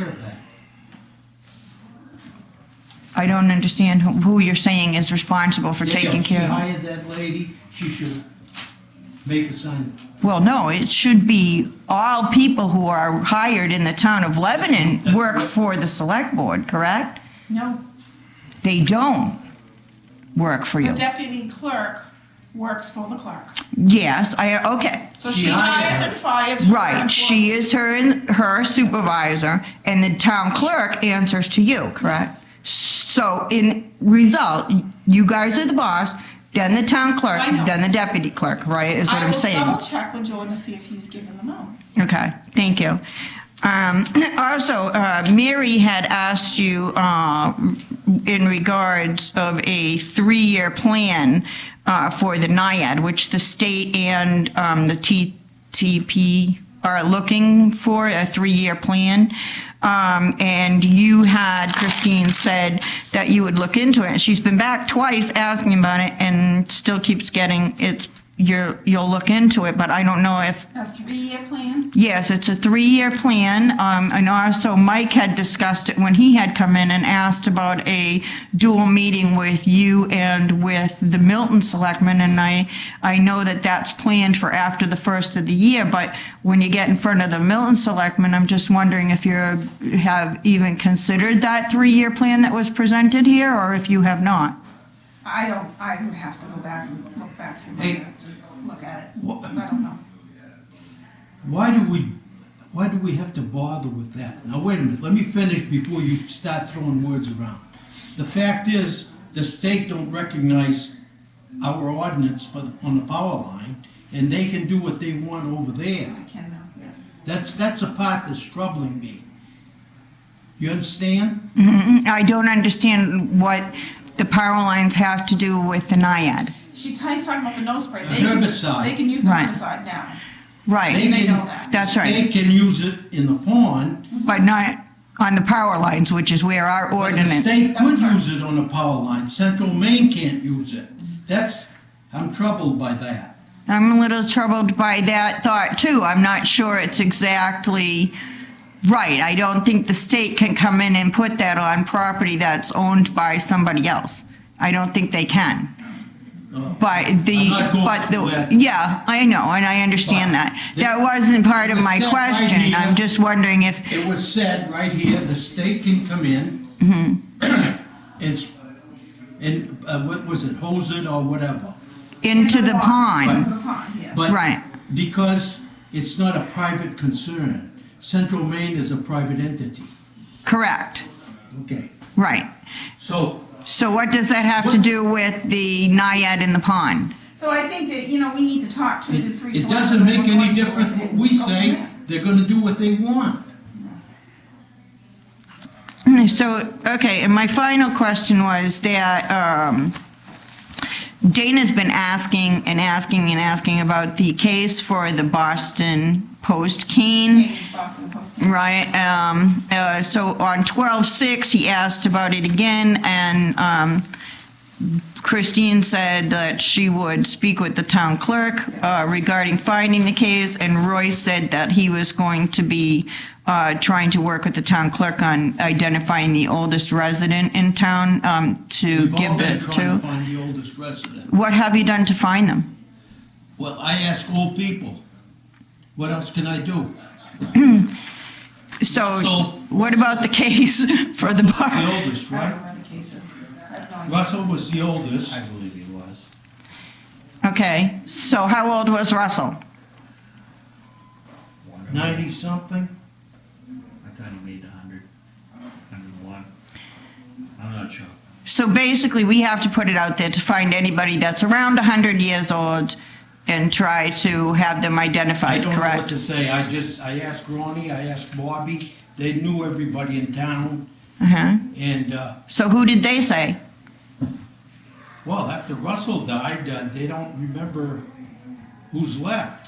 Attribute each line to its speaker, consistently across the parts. Speaker 1: of that.
Speaker 2: I don't understand who- who you're saying is responsible for
Speaker 1: Yeah,
Speaker 2: taking care of it.
Speaker 1: She hired that lady, she should make a sign.
Speaker 2: Well, no, it should be all people who are hired in the town of Lebanon work for the select board, correct?
Speaker 3: No,
Speaker 2: They don't work for
Speaker 3: the
Speaker 2: you.
Speaker 3: deputy clerk works for the clerk.
Speaker 2: Yes, I, okay,
Speaker 3: So
Speaker 1: She
Speaker 3: she
Speaker 1: hired
Speaker 3: hires
Speaker 1: her.
Speaker 3: and fires. her
Speaker 2: right, she
Speaker 3: employees.
Speaker 2: is her, her supervisor, and the town clerk answers to you, correct? So in result, you guys are the boss, then the town clerk,
Speaker 3: I know.
Speaker 2: then the deputy clerk, right, is what I'm saying.
Speaker 3: I will double check with Jordan to see if he's given them out.
Speaker 2: Okay, thank you. Um, Also, uh, Mary had asked you uh, in regards of a three-year plan uh, for the NIAID, which the state and um, the TTP are looking for, a three-year plan. Um, And you had, Christine said that you would look into it. She's been back twice asking about it and still keeps getting, it's, you're, you'll look into it, but I don't know if
Speaker 3: A three-year plan?
Speaker 2: Yes, it's a three-year plan, um, and also Mike had discussed it when he had come in and asked about a dual meeting with you and with the Milton Selectmen, and I, I know that that's planned for after the first of the year, but when you get in front of the Milton Selectmen, I'm just wondering if you have even considered that three-year plan that was presented here, or if you have not?
Speaker 3: I don't, I would have to go back and look back through my
Speaker 1: Hey.
Speaker 3: minutes and look at it,
Speaker 1: What-
Speaker 3: 'cause I don't know.
Speaker 1: Why do we, why do we have to bother with that? Now, wait a minute, let me finish before you start throwing words around. The fact is, the state don't recognize our ordinance for, on the power line, and they can do what they want over there.
Speaker 3: I can know, yeah.
Speaker 1: That's, that's the part that's troubling me. You understand?
Speaker 2: Mhm. I don't understand what the power lines have to do with the NIAID.
Speaker 3: She's he's talking about the nose spray.
Speaker 1: A
Speaker 3: They can-
Speaker 1: herbicide.
Speaker 3: They can use the
Speaker 2: Right.
Speaker 3: herbicide now.
Speaker 2: Right.
Speaker 3: And they
Speaker 1: can-
Speaker 3: know that.
Speaker 2: That's right.
Speaker 1: They can use it in the pond,
Speaker 2: But not on the power lines, which is where our
Speaker 1: but the
Speaker 2: ordinance.
Speaker 1: state
Speaker 3: That's
Speaker 1: could
Speaker 3: right.
Speaker 1: use it on the power line, central Maine can't use it. That's, I'm troubled by that.
Speaker 2: I'm a little troubled by that thought too. I'm not sure it's exactly right. I don't think the state can come in and put that on property that's owned by somebody else. I don't think they can.
Speaker 1: Uh,
Speaker 2: But the,
Speaker 1: I'm not going
Speaker 2: but
Speaker 1: through
Speaker 2: the,
Speaker 1: that.
Speaker 2: yeah, I know, and I understand that.
Speaker 1: But
Speaker 2: That wasn't part of
Speaker 1: it was
Speaker 2: my
Speaker 1: set right
Speaker 2: question.
Speaker 1: here.
Speaker 2: I'm just wondering if,
Speaker 1: It was said right here, the state can come in
Speaker 2: Mm-hmm.
Speaker 1: and, and, uh, what was it, hose it or whatever.
Speaker 2: into the
Speaker 3: Into
Speaker 2: pond,
Speaker 3: the pond, yes.
Speaker 1: But-
Speaker 2: right?
Speaker 1: Because it's not a private concern. Central Maine is a private entity.
Speaker 2: Correct,
Speaker 1: Okay,
Speaker 2: right.
Speaker 1: so
Speaker 2: So what does that have to
Speaker 1: What-
Speaker 2: do with the NIAID in the pond?
Speaker 3: So I think that, you know, we need to talk to the three.
Speaker 1: it it
Speaker 3: selectmen
Speaker 1: doesn't make
Speaker 3: and we're
Speaker 1: any
Speaker 3: going to
Speaker 1: difference
Speaker 3: it Oh,
Speaker 1: what
Speaker 3: and
Speaker 1: we
Speaker 3: go from
Speaker 1: say.
Speaker 3: there.
Speaker 1: They're gonna do what they want.
Speaker 2: So, okay, and my final question was that um, Dana's been asking and asking and asking about the case for the Boston Post cane.
Speaker 3: Boston Post.
Speaker 2: Right, um, uh, so on twelve six, he asked about it again, and, um, Christine said that she would speak with the town clerk, uh, regarding finding the case, and Roy said that he was going to be, uh, trying to work with the town clerk on identifying the oldest resident in town, um, to
Speaker 1: We've all
Speaker 2: give
Speaker 1: been
Speaker 2: it
Speaker 1: trying to
Speaker 2: to.
Speaker 1: find the oldest resident.
Speaker 2: What have you done to find them?
Speaker 1: Well, I ask old people, what else can I do? So-
Speaker 2: So, what about the case for the bar?
Speaker 1: The oldest,
Speaker 3: I don't
Speaker 1: right?
Speaker 3: know where the case is. I have no idea.
Speaker 1: Russell was the oldest.
Speaker 4: I believe he was.
Speaker 2: Okay, so how old was Russell?
Speaker 1: Ninety something?
Speaker 4: I thought he made 100, 101. I'm not sure.
Speaker 2: So basically, we have to put it out there to find anybody that's around 100 years old and try to have them
Speaker 1: I
Speaker 2: identified,
Speaker 1: don't know what
Speaker 2: correct?
Speaker 1: to say. I just, I asked Ronnie, I asked Bobby. They knew everybody in town
Speaker 2: Uh-huh.
Speaker 1: and, uh,
Speaker 2: So who did they say?
Speaker 1: well, after Russell died, uh, they don't remember who's left.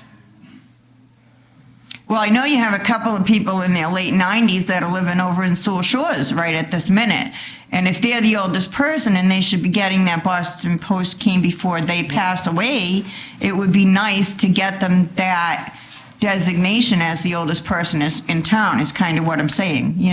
Speaker 2: Well, I know you have a couple of people in their late 90s that are living over in Sewell Shores right at this minute. And if they're the oldest person and they should be getting that Boston Post came before they pass away, it would be nice to get them that designation as the oldest person is in town, is kind of what I'm saying, you know?